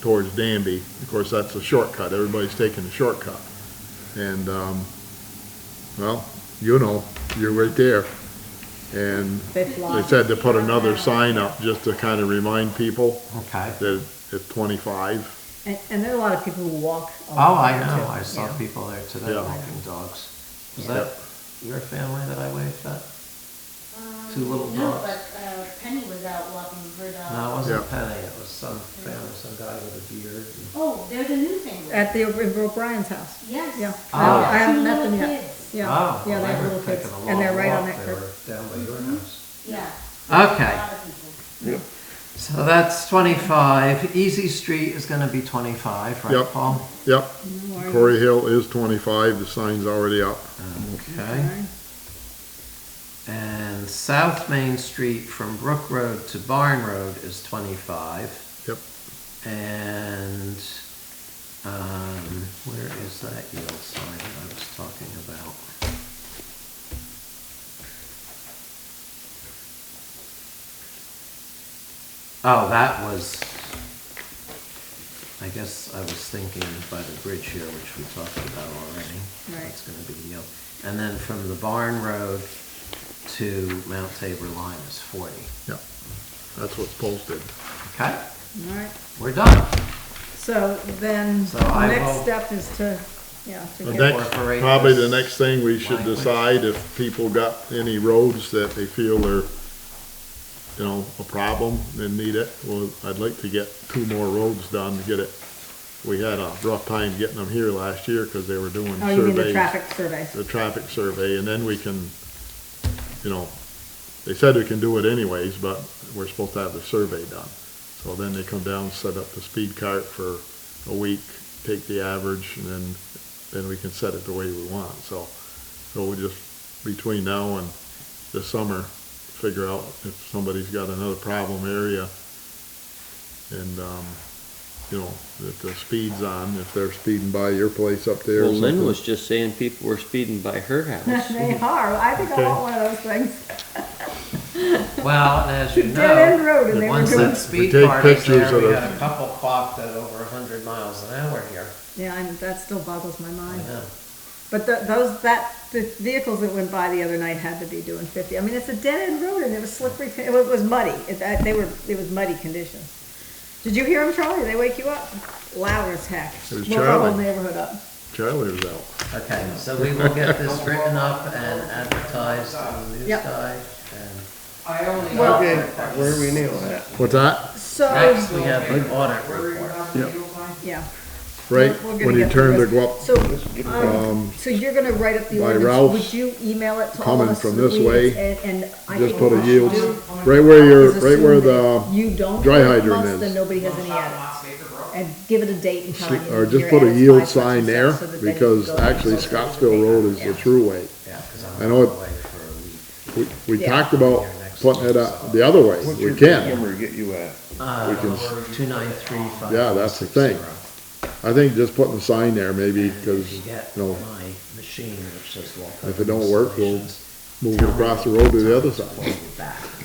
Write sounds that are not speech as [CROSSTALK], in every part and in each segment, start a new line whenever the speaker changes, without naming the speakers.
towards Danby. Of course, that's a shortcut. Everybody's taking the shortcut. And, um, well, you know, you're right there. And
They
they
fly.
said to put another sign up just to kind of remind people
Okay.
that it's twenty-five.
And, and there are a lot of people who walk.
Oh,
along
I
there,
know,
too,
I saw
yeah.
people there today
Yeah.
walking dogs. Was
Yeah.
that your family that I waved at?
Um,
Two little
No,
dogs.
but uh, Penny was out walking her dog.
No, it wasn't
Yeah.
Penny, it was some family, some guy with a beard. and-
Oh, there's a new thing.
At the, over O'Brien's house,
Yes.
Uh, yeah.
Oh.
I I haven't
Two
met them
little
yet.
kids.
Yeah,
Oh,
yeah,
well,
they have
were
little kids,
taking a
and they're
long
right on that
walk.
Mm-hmm.
They
curve.
were Down by your house.
Yeah.
Okay.
A lot of people.
So that's twenty-five. Easy Street is gonna be twenty-five, right,
Yep.
Paul?
Yep,
No worries.
Corey Hill is twenty-five, the sign's already up.
Okay. And South Main Street from Brook Road to Barn Road is twenty-five.
Yep.
And, um, where is that yield sign that I was talking about? Oh, that was, I guess I was thinking by the bridge here, which we talked about already.
Right.
That's gonna be yield. And then from the Barn Road to Mount Tabor line is forty.
Yep, that's what's posted.
Okay,
All right,
we're done.
so then,
So I
next
will-
step is to, yeah, to
The
get-
next,
Incorporate
probably the
this
next thing we should
language.
decide if people got any roads that they feel are, you know, a problem and need it. Well, I'd like to get two more roads done to get it. We had a rough time getting them here last year because they were doing
oh, you mean the
surveys.
traffic survey. [LAUGHS]
the traffic survey, and then we can, you know, they said we can do it anyways, but we're supposed to have the survey done. So then they come down, set up the speed cart for a week, take the average, and then, then we can set it the way we want, so. So we'll just, between now and the summer, figure out if somebody's got another problem area. And, um, you know, if the speed's on, if they're speeding by your place up there or
Well, Lynn
something.
was just saying people were speeding by her house.
They are, I think
Mm-hmm.
I
Okay.
want one of those things,
Well, and as you know.
dead end road, and they were
Once that
doing,
speed
take
car is
pictures
there,
of
we
the-
got a couple clocked at over hundred miles an hour here.
yeah, and that still boggles my
I
mind.
know.
But the, those, that, the vehicles that went by the other night had to be doing fifty. I mean, it's a dead end road and it was slippery, it was, it was muddy. It, that- they were, it was muddy conditions. Did you hear them, Charlie? They wake you up? Loud as heck.
It was
Woke our whole
Charlie.
neighborhood up.
Charlie was out.
Okay, so we will get this written up and advertised on the news
Yep.
guy. And
I only.
Well-
Okay, where are we now at?
What's that?
next
So,
we have the audit
Where you
report.
have
Yep.
the yellow line?
yeah.
Right,
We're gonna
when you
get
turn to
rest-
go up
So, um, so you're gonna write up the
by
ordinance.
Ralph's,
Would you email it to all of
coming
us?
from
so
this
we-
way,
And, and I
Just
think
put
what
a
we should
yield,
do
right where you're,
is
right where
assume that
the,
You don't.
dry
put it
hydrant
amongst,
is.
Then nobody has any
Shot
edits.
last acre, bro.
and give it a date and time.
see- or
and
just
your
put a
address
yield
five, such
sign
and such,
there,
so that they
because
go on
actually
and so forth.
Scottsville Road is the
Yeah.
true way.
Yeah, because
I know
I'm going
it-
away for a week.
We, we
Yeah.
talked about putting it up the other way,
What's
we
your
can.
number get you at?
Uh, two nine three five.
Yeah, that's the thing. I think just putting a sign there maybe, because,
If you get
you know,
my machine, which says walk.
if it don't work, we'll move it across the road to the other side.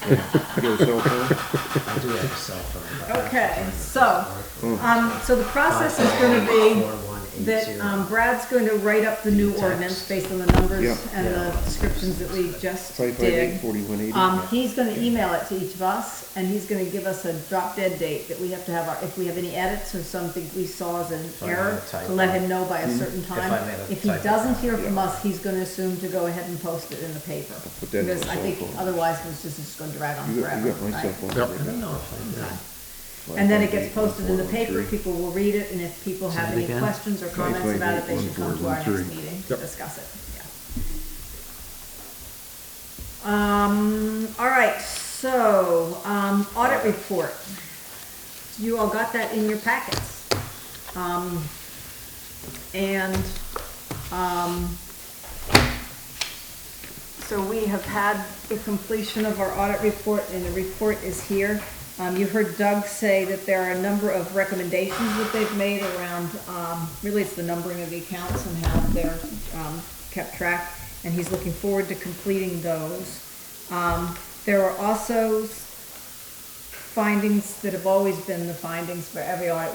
[LAUGHS]
Your cell phone?
I do have a cell phone. but I have to
Okay,
find it.
so, um, so the process is gonna be that
4180.
um, Brad's going to write up the new ordinance based on the
Yeah.
numbers and the descriptions that we just
Five five eight
did.
forty-one eighty?
Um, he's gonna email it to each of us, and he's gonna give us a drop dead date that we have to have our, if we have any edits or something we saw as an
I made
error,
a
to
typo.
let him know by
Mm-hmm.
a certain
I
time.
made a
If he
typo.
doesn't hear from us, he's gonna assume to go ahead and post it in the paper.
put that in
Because
my
I
cell
think
phone.
otherwise, it's just, it's gonna drag on
You got,
forever.
you got my cell
right?
phone.
Yep.
I don't know if I do.
And then it gets posted in the paper, people will read it, and if people have
it
any
again.
questions or comments about it, they should come to our next
558-1413.
meeting to discuss it, yeah. Um, all right, so, um, audit report. You all got that in your packets. Um, and, um, so we have had the completion of our audit report, and the report is here. Um, you heard Doug say that there are a number of recommendations that they've made around, um, really it's the numbering of the accounts and how they're, um, kept track, and he's looking forward to completing those. Um, there are also findings that have always been the findings for every audit